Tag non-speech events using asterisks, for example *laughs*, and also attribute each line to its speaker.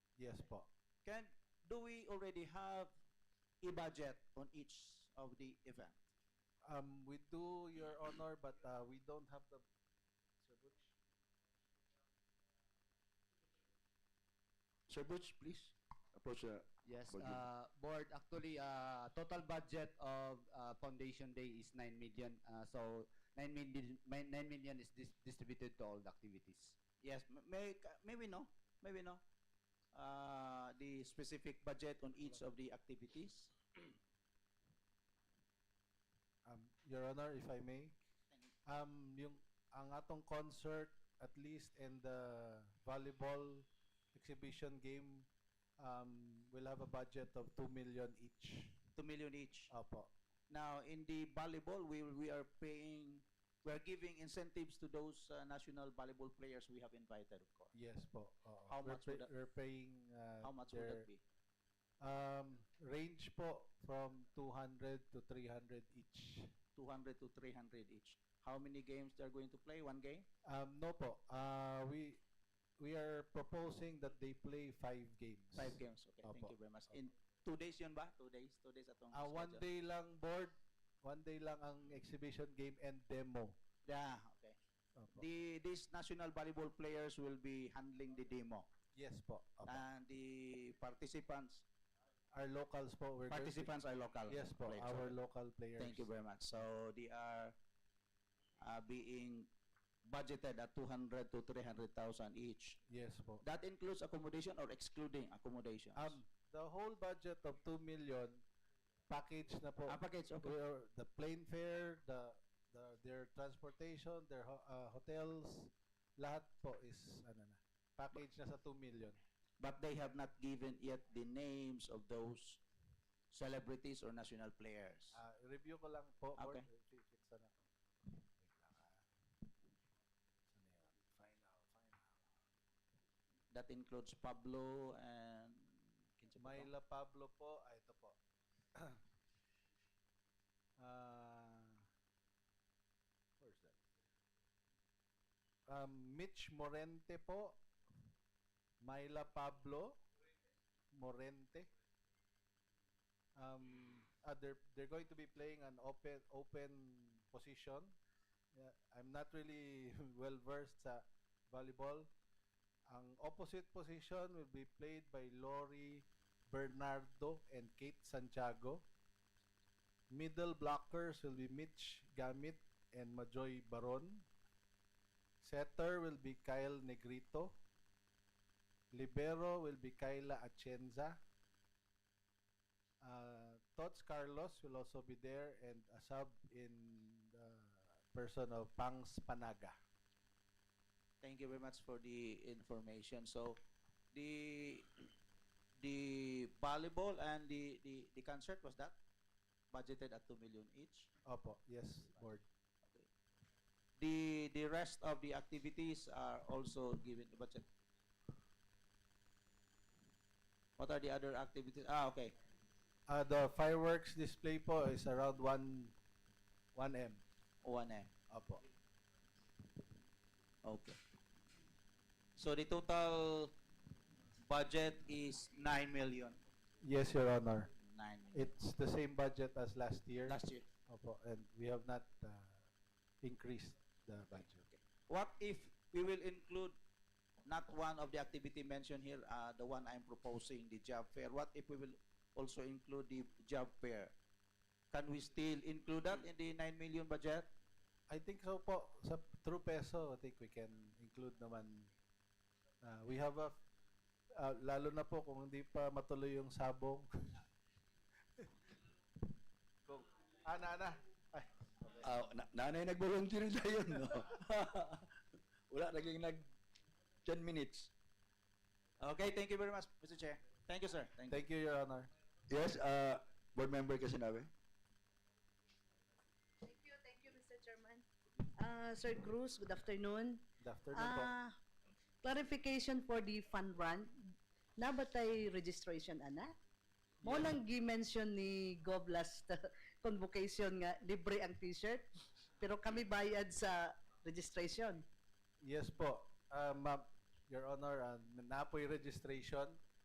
Speaker 1: Yes po. Can, do we already have a budget on each of the event?
Speaker 2: Um, we do, Your Honor, but uh, we don't have the. Sir Butch?
Speaker 3: Sir Butch, please approach the
Speaker 4: Yes,
Speaker 3: Budget.
Speaker 4: uh, board, actually, uh, total budget of uh, Foundation Day is 9 million. Uh, so 9 million, 9 million is dis- distributed to all the activities.
Speaker 1: Yes, m- may, ca- may we know, may we know, uh, the specific budget on each of the activities?
Speaker 2: Um, Your Honor, if I may. Um, yung ang atong concert at least and the volleyball exhibition game um, will have a budget of 2 million each.
Speaker 1: 2 million each.
Speaker 2: Opo.
Speaker 1: Now, in the volleyball, we, we are paying, we are giving incentives to those uh, national volleyball players we have invited, of course.
Speaker 2: Yes po. oo.
Speaker 1: How
Speaker 2: We're
Speaker 1: much would
Speaker 2: pay-
Speaker 1: that-
Speaker 2: We're paying uh,
Speaker 1: How much would
Speaker 2: their-
Speaker 1: that be?
Speaker 2: Um, range po from 200 to 300 each.
Speaker 1: 200 to 300 each. How many games they're going to play? One game?
Speaker 2: Um, no po. Uh, we we are proposing that they play five games. *laughs*
Speaker 1: Five games. Okay, thank
Speaker 2: Opo.
Speaker 1: you very much. In two days yun ba? Two days? Two days atong
Speaker 2: Ah, one
Speaker 1: schedule.
Speaker 2: day lang board, one day lang ang exhibition game and demo.
Speaker 1: Yeah, okay.
Speaker 2: Opo.
Speaker 1: The, these national volleyball players will be handling the demo.
Speaker 2: yes po. Opo.
Speaker 1: And the participants,
Speaker 2: our locals po. We're going to-
Speaker 1: participants are local.
Speaker 2: Yes po.
Speaker 1: Ah. players.
Speaker 2: Our
Speaker 1: Okay.
Speaker 2: local players.
Speaker 1: Thank you very much. So they are uh, being budgeted at 200 to 300,000 each.
Speaker 2: Yes po.
Speaker 1: That includes accommodation or excluding accommodation?
Speaker 2: Um, the whole budget of 2 million package na po.
Speaker 1: Ah, package, okay.
Speaker 2: Where the plane fare, the, the their transportation, their ho- uh, hotels, lahat po is ano na. Package na sa 2 million.
Speaker 1: but they have not given yet the names of those celebrities or national players.
Speaker 2: Ah, review ko lang po. Board,
Speaker 1: Okay.
Speaker 2: if- if it's ano. Wait lang, ah. Saan na yun? Final, final.
Speaker 1: That includes Pablo and Kinsa pa to?
Speaker 2: Myla Pablo po, ah, ito po. *clears throat* Ah, where's that? Um, Mitch Morente po. Myla Pablo. Morente. Um, ah, they're, they're going to be playing an open open position. Yeah, I'm not really *laughs* well versed sa volleyball. Ang opposite position will be played by Lori Bernardo and Kate Santiago. Middle blockers will be Mitch Gamit and Majoy Baron. Setter will be Kyle Negrito. Libero will be Kyla Achenza. Uh, Tots Carlos will also be there and a sub in the person of Pangs Panaga.
Speaker 1: Thank you very much for the information. So, the the volleyball and the the, the concert was that budgeted at two million each.
Speaker 2: Opo, yes, board.
Speaker 1: Okay. The the rest of the activities are also given the budget. What are the other activities? Ah, okay.
Speaker 2: Uh, the fireworks display po is around 1 1M.
Speaker 1: One eh.
Speaker 2: Opo.
Speaker 1: Okay. So the total budget is nine million.
Speaker 2: Yes, Your Honor.
Speaker 1: Nine million.
Speaker 2: It's the same budget as last year.
Speaker 1: Last year.
Speaker 2: Opo, and we have not uh, increased the budget.
Speaker 1: Okay. What if we will include not one of the activity mentioned here, uh, the one I'm proposing, the job fair? What if we will also include the job fair? Can we still include that in the 9 million budget?
Speaker 2: I think so po, sa true peso, I think we can include naman. Uh, we have a, uh, lalo na po kung hindi pa matuloy yung
Speaker 1: *laughs*
Speaker 2: sabong. kung, ana, ana. Ay,
Speaker 3: Ah, na, nanay nag-volunteer na yun, no? *laughs* Wala naging nag 10 minutes.
Speaker 1: Okay, thank you very much, Mr. Chair. Thank you, sir. Thank you.
Speaker 2: thank you, Your Honor.
Speaker 3: Yes, uh, board member ka sinabi?
Speaker 5: Thank you, thank you, Mr. Chairman. Uh, Sir Cruz, good afternoon.
Speaker 2: Good afternoon po.
Speaker 5: Ah, clarification for the fund run. Na ba tay registration, ana? Mo lang gi-mention ni Gov *laughs* last uh, convocation nga libre ang t-shirt, pero kami bayad sa registration.
Speaker 2: Um, Yes po. Uh, ma'am, Your Honor, uh, um, napoy registration.